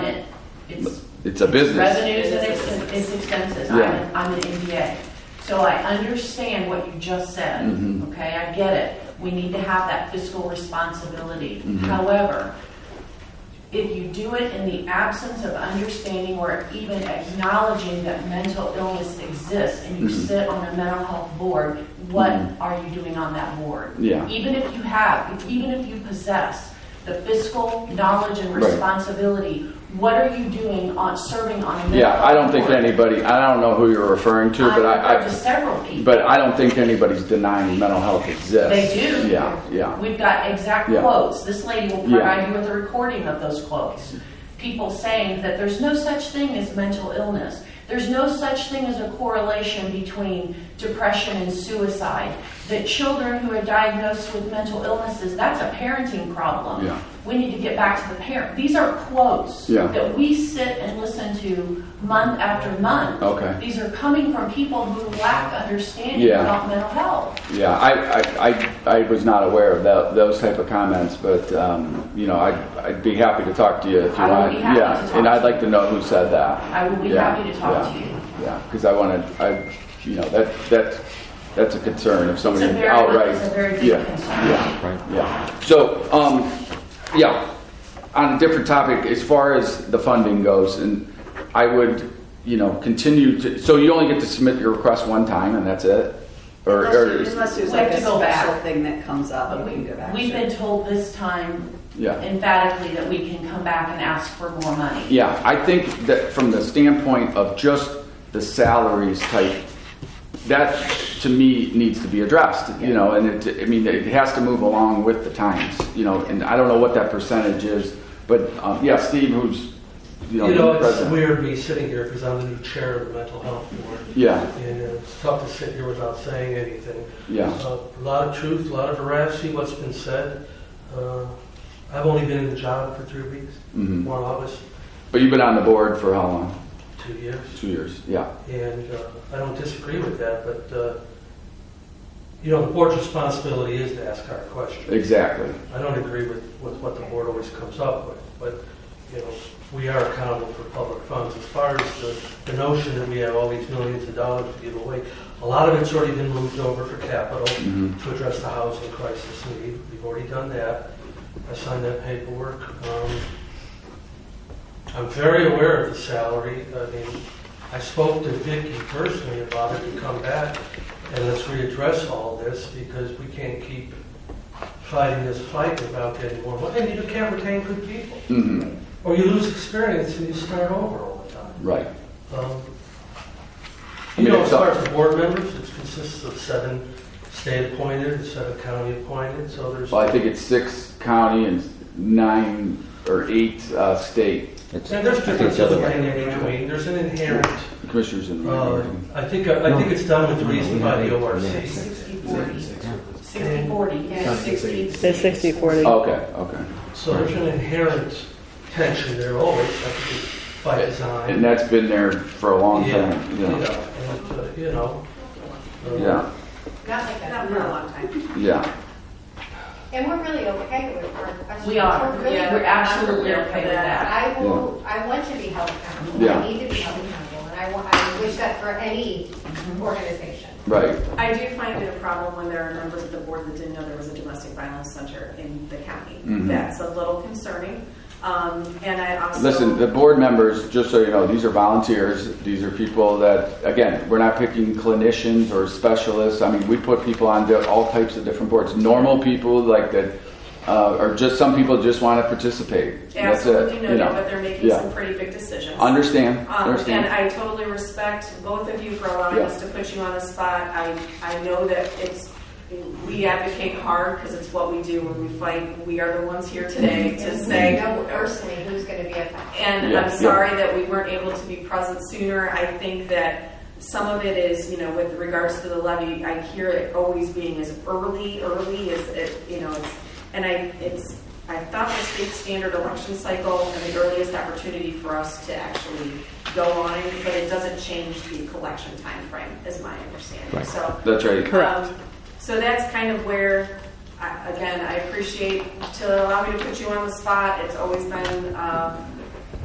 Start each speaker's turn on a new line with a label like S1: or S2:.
S1: It's a business.
S2: Revenues and ex- it's expenses. I'm,
S1: Yeah.
S2: an- I'm an MBA. So I understand what you just said,
S1: Mhm.
S2: okay? I get it. We need to have that fiscal responsibility.
S1: Mhm.
S2: However, if you do it in the absence of understanding or even acknowledging that mental illness exists and you
S1: Mhm.
S2: sit on a mental health board, what
S1: Mhm.
S2: are you doing on that board?
S1: Yeah.
S2: Even if you have, if- even if you possess the fiscal knowledge and
S1: Right.
S2: responsibility, what are you doing on, serving on a mental
S1: Yeah, I don't
S2: health
S1: think
S2: board?
S1: anybody, I don't know who you're referring to,
S2: I've
S1: but I,
S2: heard to
S1: I,
S2: several people.
S1: but I don't think anybody's denying mental health
S2: They
S1: exists.
S2: do.
S1: Yeah, yeah.
S2: We've got exact
S1: Yeah.
S2: quotes. This lady will
S1: Yeah.
S2: provide you with a recording of those quotes. People saying that there's no such thing as mental illness. There's no such thing as a correlation between depression and suicide. That children who are diagnosed with mental illnesses, that's a parenting problem.
S1: Yeah.
S2: We need to get back to the parent. These are quotes
S1: Yeah.
S2: that we sit and listen to month after month.
S1: Okay.
S2: These are coming from people who lack understanding
S1: Yeah.
S2: about mental health.
S1: Yeah, I, I, I, I was not aware of tho- those type of comments, but, um, you know, I'd, I'd be happy to talk to you if you
S2: I would
S1: want.
S2: be happy to
S1: Yeah,
S2: talk
S1: and I'd
S2: to
S1: like to know who said that.
S2: I would be
S1: Yeah,
S2: happy to talk
S1: yeah,
S2: to you.
S1: Yeah, because I want to, I, you know, that, that's, that's a concern if somebody
S2: very-
S1: outright.
S2: it's a very big
S1: yeah,
S2: concern.
S1: Yeah, right, yeah. So, um, yeah, on a different topic, as far as the funding goes, and I would, you know, continue to, so you only get to submit your request one time and that's it? Or,
S3: Unless
S1: or,
S3: you- unless there's
S2: We have
S3: like a
S2: to go back.
S3: special thing that comes up,
S2: But
S3: you
S2: we,
S3: can go back.
S2: we've
S3: to.
S2: been told this time
S1: Yeah.
S2: emphatically that we can come back and ask for more money.
S1: yeah, I think that from the standpoint of just the salaries type, that to me needs to be addressed, you know, and it, I mean, it has to move along with the times, you know, and I don't know what that percentage is, but, um, yeah, Steve, who's, you know,
S4: You know,
S1: the
S4: it's
S1: president.
S4: weird me sitting here because I'm the new chair of the mental health board.
S1: Yeah.
S4: And it's tough to sit here without saying anything.
S1: Yeah.
S4: Uh, A lot of truth, a lot of veracity, what's been said. Uh, I've only been in the job for three weeks,
S1: Mhm.
S4: more or less,
S1: But you've been on the board for how long?
S4: two years.
S1: Two years. Yeah.
S4: And uh, I don't disagree with that, but, uh, you know, the board's responsibility is to ask hard questions.
S1: Exactly.
S4: I don't agree with, with what the board always comes up with, but, you know, we are accountable for public funds. As far as the, the notion that we have all these millions of dollars to give away, a lot of it's already been moved over for capital
S1: Mhm.
S4: to address the housing crisis, and we- we've already done that. I signed that paperwork. Um, I'm very aware of the salary. I mean, I spoke to Vicki personally about it to come back and let's readdress all this because we can't keep fighting this fight without getting more money. And you can't retain good people.
S1: hmm
S4: Or you lose experience and you start over all the time.
S1: Right.
S4: Um,
S1: I
S4: You
S1: mean,
S4: know, as
S1: it's
S4: far
S1: up-
S4: as the board members, it consists of seven state appointed and seven county appointed, so there's.
S1: Well, I think it's six county and nine or eight uh, state
S4: And there's differences in between, there's an inherent,
S1: commissioners in the
S4: uh,
S1: minority.
S4: I think, uh, I think it's done with reason by the ORC.
S2: 60/40. 60/40, yeah, 60.
S5: Say 60, 40.
S1: okay. Okay.
S4: So there's an inherent tension there always, I think, by design.
S1: And that's been there for a long time.
S4: Yeah,
S1: Yeah.
S4: and, uh, you know. uh,
S1: Yeah.
S6: Not like that for a long time.
S1: Yeah.
S6: And we're really okay with our questions.
S2: We are.
S6: We're really-
S2: Yeah, we're absolutely okay with that.
S6: I will, I want to be held accountable.
S1: Yeah.
S6: I need to be held accountable, and I want, I wish that for any
S2: Mm-hmm.
S6: organization.
S1: Right.
S7: I do find it a problem when there are members of the board that didn't know there was a domestic violence center in the county.
S1: Mhm.
S7: That's a little concerning. Um, and I also.
S1: Listen, the board members, just so you know, these are volunteers. These are people that, again, we're not picking clinicians or specialists. I mean, we put people on di- all types of different boards. Normal people like that, uh, or just some people just want to participate. That's
S7: Absolutely
S1: it.
S7: no
S1: You
S7: doubt,
S1: know.
S7: but they're making
S1: Yeah.
S7: some pretty big decisions.
S1: Understand?
S7: Um, and
S1: Understand?
S7: I totally respect both of you for allowing
S1: Yeah.
S7: us to put you on the spot. I, I know that it's, we advocate hard because it's what we do when we fight. We are the ones here today to
S1: Mm-hmm.
S6: And
S7: say.
S6: We know personally who's going to be affected.
S7: And
S1: Yeah,
S7: I'm
S1: yeah.
S7: sorry that we weren't able to be present sooner. I think that some of it is, you know, with regards to the levy, I hear it always being as early, early as it, you know, it's, and I, it's, I thought the state standard election cycle and the earliest opportunity for us to actually go on, but it doesn't change the collection timeframe, is my understanding, so.
S1: That's right.
S5: Correct.
S7: Um, So that's kind of where, I- again, I appreciate to allow me to put you on the spot. It's always been uh,